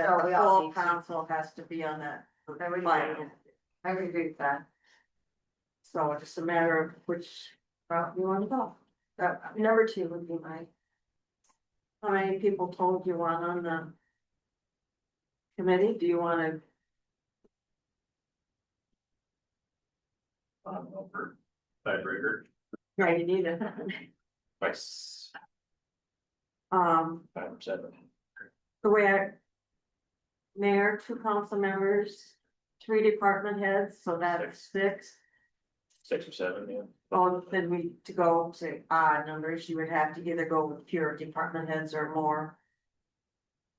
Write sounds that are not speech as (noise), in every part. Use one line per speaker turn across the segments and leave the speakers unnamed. So
the
we all
full
need to.
council has to be on that
Everybody-
plan.
I would agree with that.
So it's just a matter of which route you wanna go.
Uh, number two would be my,
How many people told you on on the committee? Do you wanna
Um, over tiebreaker,
Yeah, you need it. (laughs)
by
Um,
five or seven.
the way I. Mayor, two council members, three department heads, so that's six.
Six or seven, yeah.
Well, then we, to go to odd numbers, you would have to either go with pure department heads or more.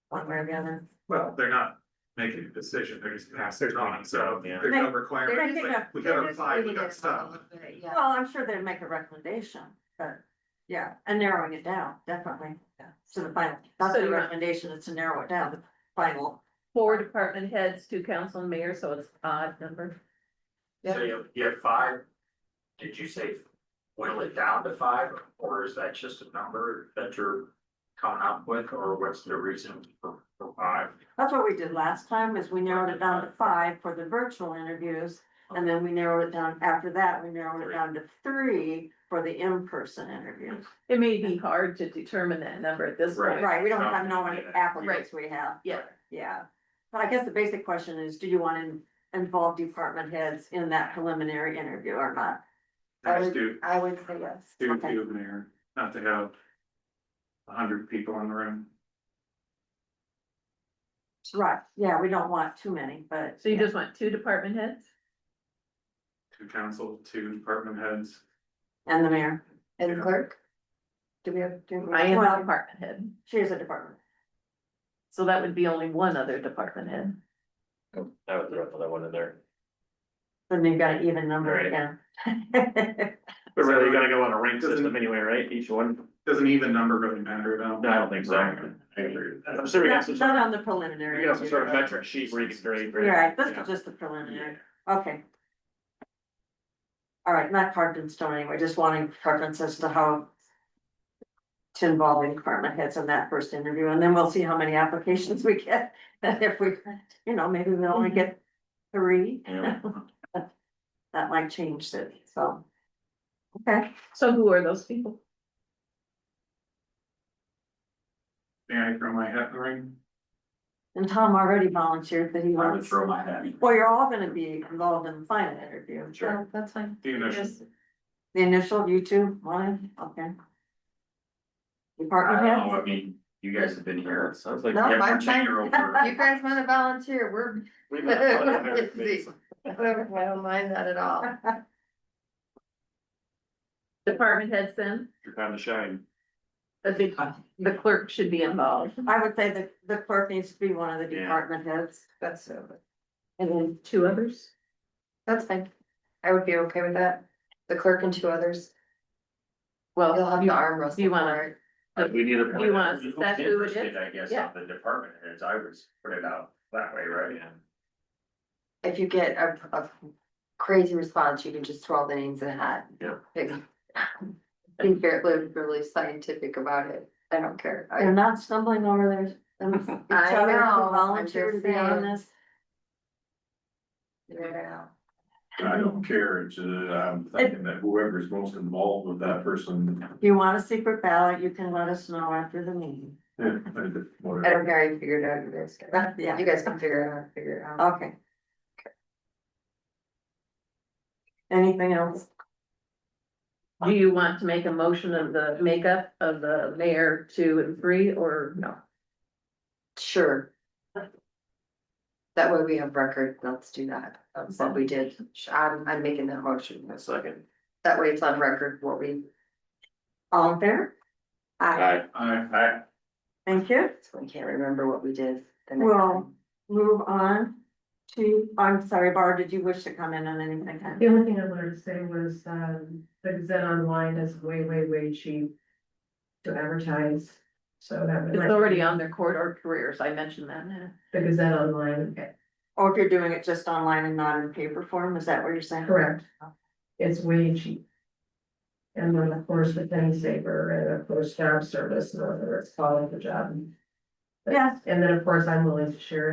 One way or the other.
Well, they're not making a decision, they're just passing it on, so
Yeah.
there's no
they're
requirement,
just,
picking up-
like, we
they're
got a
just
five, we
waiting
got
it out a
stuff.
little bit,
Well,
yeah.
I'm sure they'd make a recommendation, but yeah, and narrowing it down, definitely. So the final, that's
So
the
you're-
recommendation, is to narrow it down, the final.
four department heads, two council and mayor, so it's odd number.
So you have, you have five, did you say whittle it down to five, or is that just a number that you're coming up with, or what's the reason for, for five?
That's what we did last time, is we narrowed it down to five for the virtual interviews. And then we narrowed it down, after that, we narrowed it down to three for the in-person interviews.
It may be hard to determine that number at this point.
Right, we don't have no many applicants we have.
Yeah.
Yeah, but I guess the basic question is, do you want to involve department heads in that preliminary interview or not?
I just do,
I would say yes.
do,
Okay.
do, mayor, not to have a hundred people in the room.
Right, yeah, we don't want too many, but.
So you just want two department heads?
Two council, two department heads.
And the mayor,
And clerk? Do we have? do we-
I am
Well-
a department head,
she is a department.
so that would be only one other department head.
I would throw Oh, that one in there.
Then you've got an even number (laughs)
Right.
again.
But really, you gotta go on a rank system anyway, right? Each one?
Does an even number really matter about?
No, I don't think so. I agree with that. I'm sure we got
Not
some
not
sort of,
on the preliminary.
we got some sort of
interview.
metric sheet where you can grade. grade.
Right, this (laughs)
Yeah.
is just the preliminary, okay. All right, not carved in stone anyway, just wanting preference as to how. To involve the department heads in that first interview, and then we'll see how many applications we get, (laughs) and if we, you know, maybe we
Mm-hmm.
only get three,
Yeah.
that might change it, so. Okay,
So who are those people?
May I throw my hat in the ring?
and Tom already volunteered that he
I would
wants,
throw my hat in.
well, you're all gonna be involved in the final interview. Oh,
Yeah, That's fine.
The initial,
The initial, you two, one, okay.
I
Uh-huh.
Department head?
don't know, I mean, you guys have been here, so.
Sounds like.
No,
Yeah,
I'm
you're
fine.
(laughs)
over.
You guys wanna volunteer, we're,
We've been on a hundred committees.
whatever, I don't mind that at all.
Department heads then,
Your time to shine.
I think the clerk should be involved,
I would say that the clerk needs to be one of the
Yeah.
department heads.
That's, uh,
and then two others.
that's fine. I would be okay with that. The clerk and two others, you'll
Well,
have the arm wrestle
you wanna-
for it.
Uh,
We need a.
Do you want us- that's who it is?
Interested, I guess,
Yeah.
on the department heads, I would put it out that way, right?
Yeah.
If you get a, a crazy response, you can just throw all the names in a hat.
Yeah.
Like, (laughs) Be fairly, really scientific about it. I don't care. I-
They're not stumbling over their, them- each
(laughs) I
other
know,
to
I'm
volunteer to
just
be on
saying.
this.
Yeah.
I don't care, it's, uh, I'm thinking that whoever's most involved with that person,
If you want a secret ballot, you can let us know after the meeting.
eh, whatever.
I don't care, I figured out you guys. can-
Yeah.
You guys can figure it out, figure it out. Uh,
Okay. Anything else?
Do you want to make a motion of the makeup of the mayor two and three or no?
Sure. That way we have record, let's do that, that's what we did, I'm, I'm making that motion,
A second.
that way it's on record what we.
All in favor?
I,
I,
I,
Thank you.
we can't remember what we did. the next
Well-
time.
Move on to, I'm sorry, Barb, did you wish to come in on anything?
The only thing I wanted to say was, um, the Gazette Online is way, way, way cheap to advertise, so that. would
It's
like-
already on their corridor careers, I mentioned that.
The Gazette Online, eh,
Or if you're doing it just online and not in paper form, is that what you're saying?
correct. It's way cheap. And then, of course, the Penny Saver and of course, job service, and whatever it's called, the job.
Yes.
And then, of course, I'm willing to share it.